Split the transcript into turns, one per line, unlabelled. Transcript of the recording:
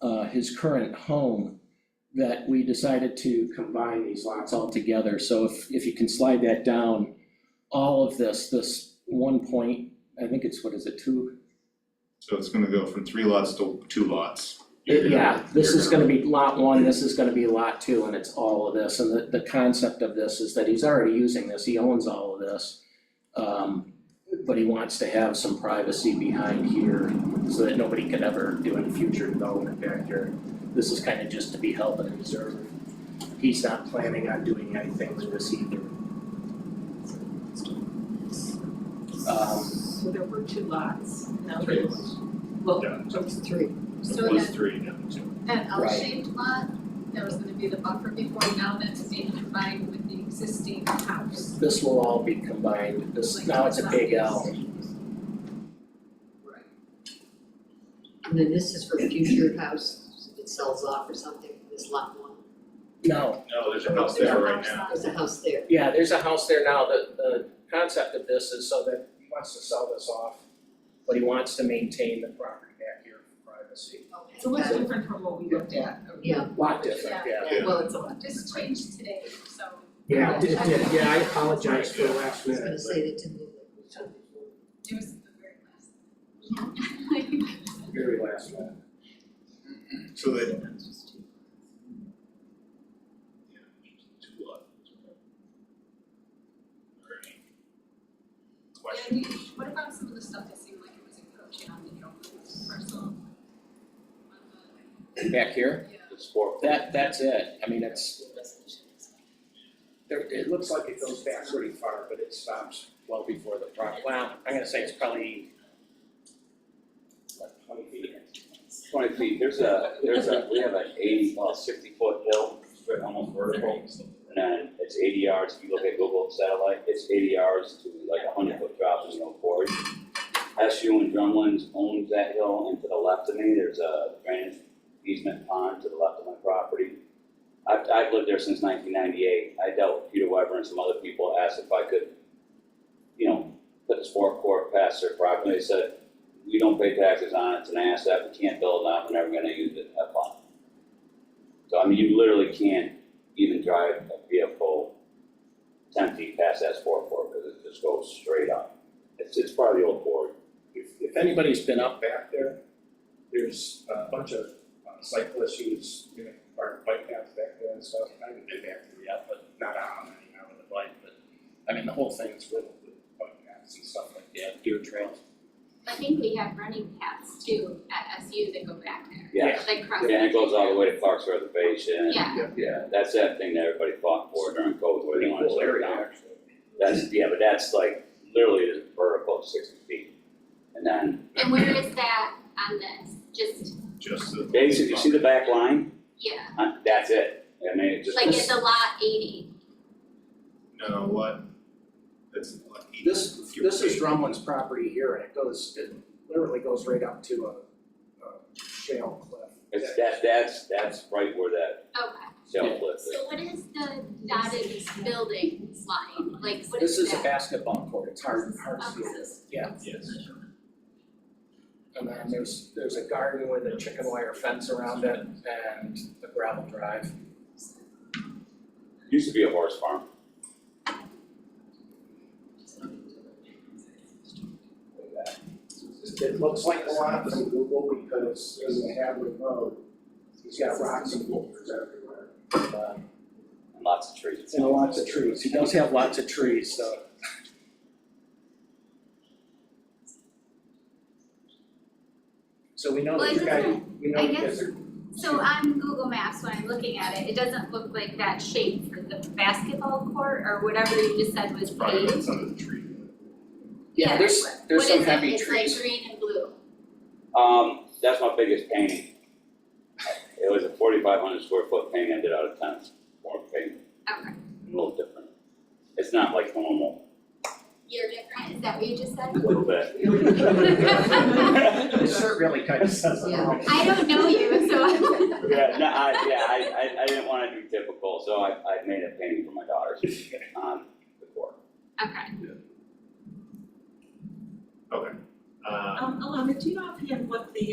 uh, his current home, that we decided to combine these lots all together. So if, if you can slide that down, all of this, this one point, I think it's, what is it, two?
So it's gonna go from three lots to two lots. You're gonna-
Uh, Yeah, this
you're
is gonna be lot one, this is gonna be lot two, and it's all of this. And the, the concept of this is that he's already using this, he owns all of this. Um, but he wants to have some privacy behind here so that nobody could ever do any future development back here. This is kind of just to be held and observed. He's not planning on doing anything with this either. Um,
So there were two lots, no?
Three lots.
Well,
Yeah,
it was three.
so it was three, now two.
That
Right.
L-shaped lot, there was gonna be the buffer before, now that's being combined with the existing house.
this will all be combined, this,
Like,
now it's a big L.
Right.
And then this is for future house, if it sells off or something, this lot one,
No,
No, there's a house there right now.
there's a house there.
Yeah, there's a house there now, the, the concept of this is so that he wants to sell this off, but he wants to maintain the property back here for privacy.
It's a little different from what we looked at.
Yeah,
Lot different, yeah.
Yeah.
Well, it's a lot.
Just changed today, so.
Yeah, it did, yeah, I apologize for the last
I was gonna
minute,
say they didn't look like each other before.
It was the very last.
Very last one.
So that. Two lots. Question.
And what about some of the stuff that seemed like it was encroaching on the Gilmore parcel?
Back here?
Yeah.
It's four.
That, that's it, I mean, it's. There, it looks like it goes back pretty far, but it stops well before the property. Wow, I'm gonna say it's probably. Like twenty feet.
Twenty feet, there's a, there's a, we have an eighty, well, sixty foot hill, straight almost vertical. And then it's eighty yards, if you look at Google satellite, it's eighty yards to like a hundred foot drop in the old quarry. SU and Drumlins owns that hill, and to the left of me, there's a drainage easement pond to the left of my property. I've, I've lived there since nineteen ninety-eight, I dealt with Peter Weber and some other people, asked if I could, you know, put this forecourt past their property, they said, we don't pay taxes on it, it's an asset, we can't build on it, we're never gonna use it, have fun. So I mean, you literally can't even drive a vehicle ten feet past that sport court, because it just goes straight up. It's, it's part of the old board.
If, if anybody's been up back there, there's a bunch of uh, cyclists who's, you know, park bike paths back there and stuff. I haven't been back there yet, but not on, you know, with a bike, but, I mean, the whole thing is riddled with bike paths and stuff like that, deer trails.
I think we have running paths too at SU that go back there,
Yeah,
like cross.
and it goes all the way to Clark's Reservation.
Yeah.
Yeah, that's that thing that everybody fought for during COVID, where they wanted to
Cool
tear it
area,
down.
actually.
That's, yeah, but that's like literally just vertical sixty feet. And then
And where is that on this? Just,
Just the.
basically, you see the back line,
yeah,
Uh, that's it. I mean, it just.
like it's a lot eighty.
No, what? That's like eight.
This, this is Drumlin's property here, and it goes, it literally goes right up to a, a shale cliff.
It's that, that's, that's right where that
Okay.
shell clip is.
So what is the dotted building line? Like what
This
is
is a
that?
basketball court, it's hard, hard to see
Okay.
this, yeah.
Yes.
And then there's, there's a garden with a chicken wire fence around it and a gravel drive.
Used to be a horse farm.
it looks like a lot from Google because in the Hadley Road, he's got rocks and boulders everywhere.
uh,
And lots of trees.
And lots of trees, he does have lots of trees, so. So we know
Well,
that
it
you guys,
doesn't-
we know
I
you guys
guess-
are,
So on Google Maps, when I'm looking at it, it doesn't look like that shape for the basketball court or whatever you just said was
It's probably
paved.
that's under the tree.
yeah, there's,
what-
there's some
What
heavy
is it? It's
trees.
like green and blue.
Um, that's my biggest painting. It was a forty-five hundred square foot painting I did out of tents, more paint,
Okay,
a little different. It's not like normal,
you're different, is that what you just said?
a little bit.
This shirt really kind of says it all.
I don't know you, so I
Yeah, no, I, yeah, I, I, I didn't wanna do typical, so I, I made a painting for my daughters um, on the court.
okay.
Uh,
uh,
Um, Alana, do you know offhand what the